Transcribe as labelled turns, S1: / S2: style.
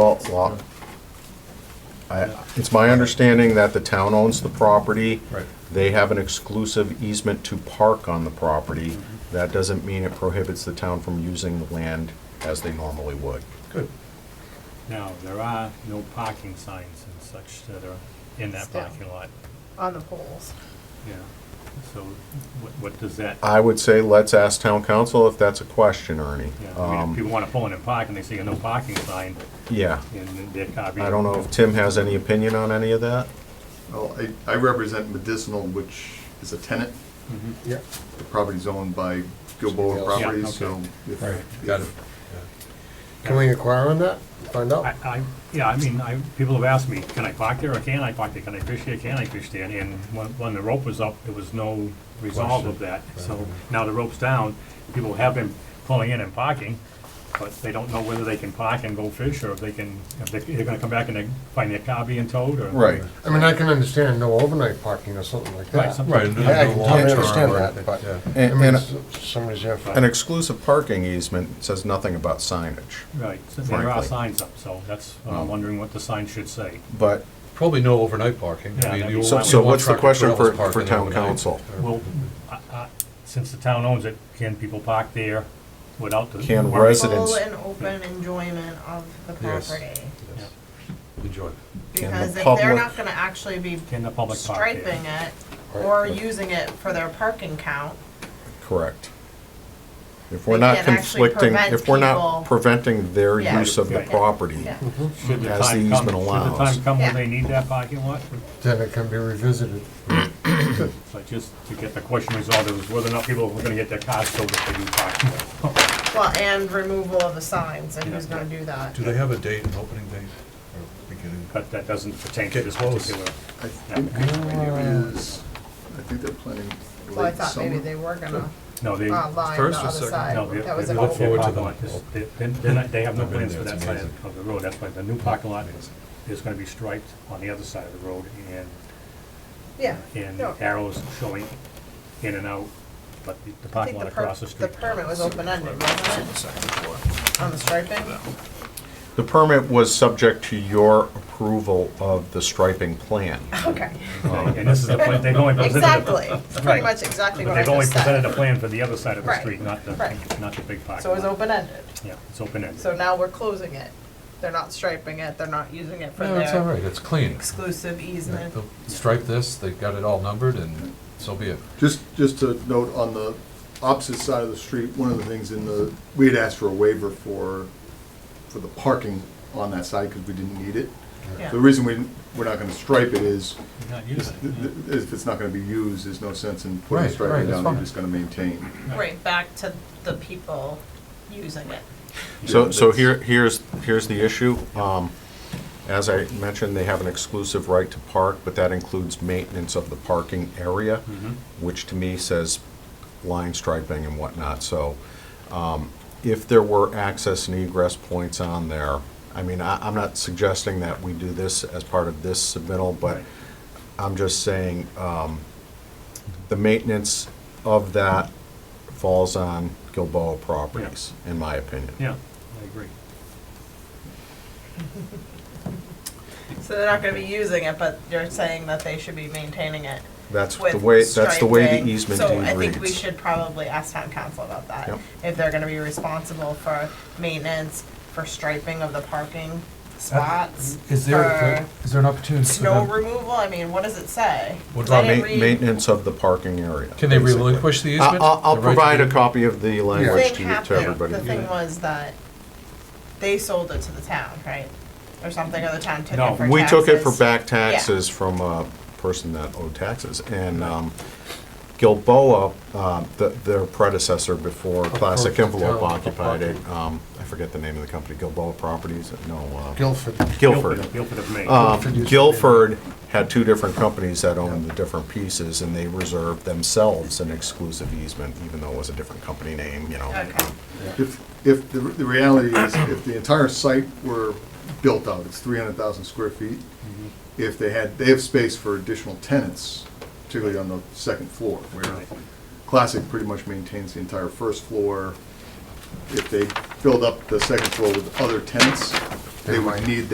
S1: Well, well, I- It's my understanding that the town owns the property.
S2: Right.
S1: They have an exclusive easement to park on the property. That doesn't mean it prohibits the town from using the land as they normally would.
S2: Good.
S3: Now, there are no parking signs and such that are in that
S4: Still.
S3: parking lot,
S4: on the poles.
S3: yeah. So what, what does that,
S1: I would say let's ask town council if that's a question, Ernie.
S3: yeah, I mean, if
S1: Um,
S3: people wanna pull in and park and they see a no parking sign
S1: Yeah,
S3: and their car being.
S1: I don't know if Tim has any opinion on any of that.
S5: Well, I, I represent medicinal, which is a tenant.
S3: Mhm.
S2: Yeah.
S5: The property's owned by Gilboa
S2: Yeah,
S5: Properties, so.
S3: okay.
S5: if-
S2: Right, got it.
S6: Can we inquire on that? Find
S3: I,
S6: out?
S3: I, yeah, I mean, I, people have asked me, can I park there or can I park there, can I fish there, can I fish there? And when, when the rope was up, there was no resolve of that, so now the rope's down, people have been pulling in and parking, but they don't know whether they can park and go fish, or if they can, if they- they're gonna come back and they find their car being towed, or.
S6: I mean, I can understand no overnight parking or something like
S3: Right,
S6: that.
S3: something.
S2: Right. and
S6: I I
S2: no
S6: can
S2: long-term,
S6: totally understand
S2: right,
S6: that, but,
S2: yeah.
S6: I
S1: And-
S6: mean,
S1: and-
S6: s- somebody's there for,
S1: An exclusive parking easement says nothing about signage,
S3: Right, so there are
S1: Frankly.
S3: signs up, so that's,
S1: Um,
S3: I'm wondering what the sign should say.
S1: but,
S2: Probably no overnight parking.
S3: Yeah,
S2: I
S3: that'd
S2: mean, you
S3: be-
S2: won't-
S3: So-
S2: you
S3: so
S2: won't
S1: what's the
S2: truck or
S1: question
S2: trailers
S1: for-
S2: parking
S1: for town
S2: overnight.
S1: council?
S2: Or-
S3: Well, I, I, since the town owns it, can people park there without the?
S1: Can
S3: worry?
S1: resi-
S4: Full
S1: Residents.
S4: and open enjoyment of the
S2: Yes.
S4: property.
S2: Yes. Enjoy.
S1: Can the
S4: Because if
S1: public-
S4: they're not gonna actually be
S3: Can the public park there?
S4: striping it
S6: Right.
S4: or using it for their parking count,
S1: correct. If we're
S4: They
S1: not
S4: can't actually
S1: conflicting,
S4: prevent
S1: if we're not
S4: people-
S1: preventing their
S4: Yeah.
S1: use of the
S3: Right.
S1: property.
S4: yeah.
S3: Should the
S1: As the
S3: time
S1: easement
S3: come, should the
S1: allows.
S3: time come when
S4: Yeah.
S3: they need that parking lot?
S6: then it can be revisited.
S3: But just to get the question resolved, it was whether or not people were gonna get their cars sold if they do park there.
S4: Well, and removal of the signs, and who's
S3: Yeah.
S4: gonna do that?
S2: Do they have a date, an opening date, or beginning?
S3: But that doesn't pertain to
S2: Get
S3: this
S2: close.
S3: particular
S5: I think
S3: application.
S5: it is, I think they're planning
S4: Well, I
S5: late
S4: thought maybe they
S5: summer.
S4: were gonna
S3: No, they,
S4: uh, line the
S2: First or
S4: other
S2: second?
S3: no,
S4: side,
S3: they,
S4: that was
S3: they
S4: an
S2: look
S4: old
S2: forward
S3: forward
S2: to
S3: to
S2: them.
S3: They, they're- they're not- they have no
S2: I've been
S3: plans for
S2: there,
S3: that
S2: it's
S3: side
S2: amazing.
S3: of the road, that's why the new parking lot is gonna be striped on the other side of the road and,
S4: Yeah.
S3: and
S4: No,
S3: arrows showing in and out, but the- the
S4: I
S3: parking
S4: think
S3: lot
S4: the
S3: across
S4: per-
S3: the
S4: the
S3: street.
S4: permit was open-ended, wasn't it, on the striping?
S1: The permit was subject to your approval of the striping plan. Um,
S4: Okay,
S3: And this is the, plan- they've only presented the
S4: exactly, It's pretty
S3: Right.
S4: much exactly
S3: But
S4: what I
S3: they've only
S4: just
S3: presented a
S4: said.
S3: plan for the other side of the
S4: Right.
S3: street, not the,
S4: Right.
S3: not the big parking lot.
S4: So it was open-ended.
S3: Yeah, it's open-ended.
S4: So now we're closing it. They're not striping it, they're not using it for
S2: No, it's all
S4: their
S2: right, it's clean.
S4: exclusive easement.
S2: They'll stripe this, they've got it all numbered, and so be it.
S5: Just, just to note, on the opposite side of the street, one of the things in the, we had asked for a waiver for, for the parking on that side because we didn't need it.
S4: Yeah.
S5: The reason we, we're not gonna stripe it is,
S3: Not
S5: is-
S3: using it, yeah.
S5: if it's not gonna be used, there's no sense in putting
S2: Right, right,
S5: striping
S2: that's
S5: down, you're
S2: fine.
S5: just gonna maintain.
S4: Right, back to the people using it.
S1: So,
S5: Yeah,
S1: so
S5: that's-
S1: here, here's, here's the issue. Um, As I mentioned, they have an exclusive right to park, but that includes maintenance of the parking area, which to me says line striping and whatnot. So um, if there were access and egress points on there, I mean, I, I'm not suggesting that we do this as part of this submittal, but
S3: Right.
S1: I'm just saying, um, the maintenance of that falls on Gilboa Properties, in my opinion.
S3: Yeah, I agree.
S4: So they're not gonna be using it, but you're saying that they should be maintaining it
S1: That's
S4: with
S1: the way, that's the way
S4: striping.
S1: the easement
S4: So
S1: deed
S4: I think we
S1: reads.
S4: should probably ask town council about that.
S1: Yep.
S4: If they're gonna be responsible for maintenance, for striping of the parking spots,
S2: Is
S4: for
S2: is there an opportunity
S4: Uh, snow removal, I mean, what does it say?
S2: What
S4: I
S1: Uh,
S2: about
S4: didn't
S1: ma-
S4: read-
S1: Maintenance of the parking area.
S2: Can they
S1: basically.
S2: relinquish the
S1: I-
S2: easement?
S1: I'll, I'll
S2: The right to
S1: provide
S2: do-
S1: a copy of the language
S4: thing
S1: to you, to
S4: happened,
S1: everybody.
S4: the thing was that they sold it to the town, right? Or something, or the town took
S3: No,
S4: it for
S1: We took it for
S4: taxes.
S1: back taxes from a person that owed taxes, and um, Gilboa, um, th- their predecessor before Classic
S6: course, the
S1: Envelope
S6: town
S1: occupied it,
S6: occupied
S1: um, I forget the name of the company, Gilboa Properties, no, uh,
S6: Guilford.
S1: Guilford.
S3: Guilford of Maine.
S6: Guilford
S1: Um,
S6: used to be-
S1: Guilford had two different companies that owned the different pieces, and they reserved themselves an exclusive easement, even though it was a different company name, you know.
S4: Okay,
S5: If, if, the the reality is, if the entire site were built out, it's 300,000 square feet, if they had, they have space for additional tenants, particularly on the second floor, where
S3: Right.
S5: Classic pretty much maintains the entire first floor. If they filled up the second floor with other tenants, they would need